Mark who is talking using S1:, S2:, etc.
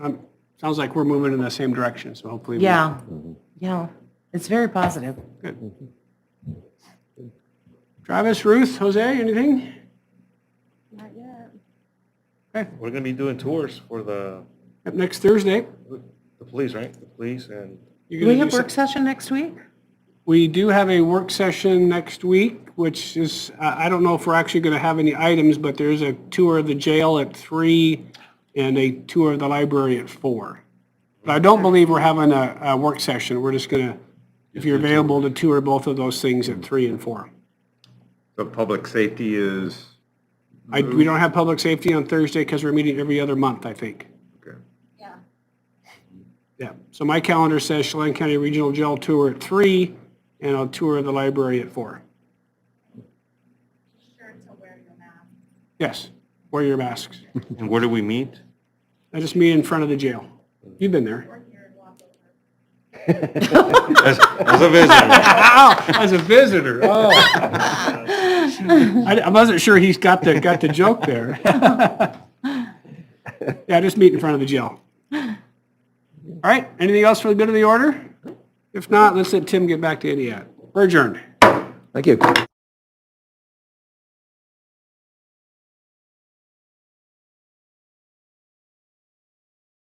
S1: Um, Sounds like we're moving in the same direction, so hopefully. we-
S2: Yeah, yeah, it's very positive.
S1: Travis, Ruth, Jose, anything?
S3: Not yet.
S1: Okay,
S4: We're gonna be doing tours for the,
S1: up next Thursday.
S4: the police, right? The police and
S1: you're
S2: Do
S1: gonna
S2: we have
S1: some-
S2: work session next week?
S1: We do have a work session next week, which is, I I don't know if we're actually going to have any items, but there is a tour of the jail at three and a tour of the library at four. But I don't believe we're having a, a work session. We're just going to, if you're available, to tour both of those things at three and four.
S5: So public safety is,
S1: I, we don't have public safety on Thursday because we're meeting every other month, I think.
S5: okay.
S3: Yeah.
S1: Yeah. So my calendar says Chelan County Regional Jail Tour at three and a tour of the library at four.
S3: Be sure to wear your mask.
S1: Yes, wear your masks.
S4: And where do we meet?
S1: I just meet in front of the jail. You've been there.
S3: We're here and walk over.
S4: As, as a visitor.
S1: Wow, as a visitor. Oh. I, I wasn't sure he's got the, got the joke there. Yeah, just meet in front of the jail. All right, anything else for the good of the order? If not, let's let Tim get back to Indiana. We're adjourned.
S6: Thank you.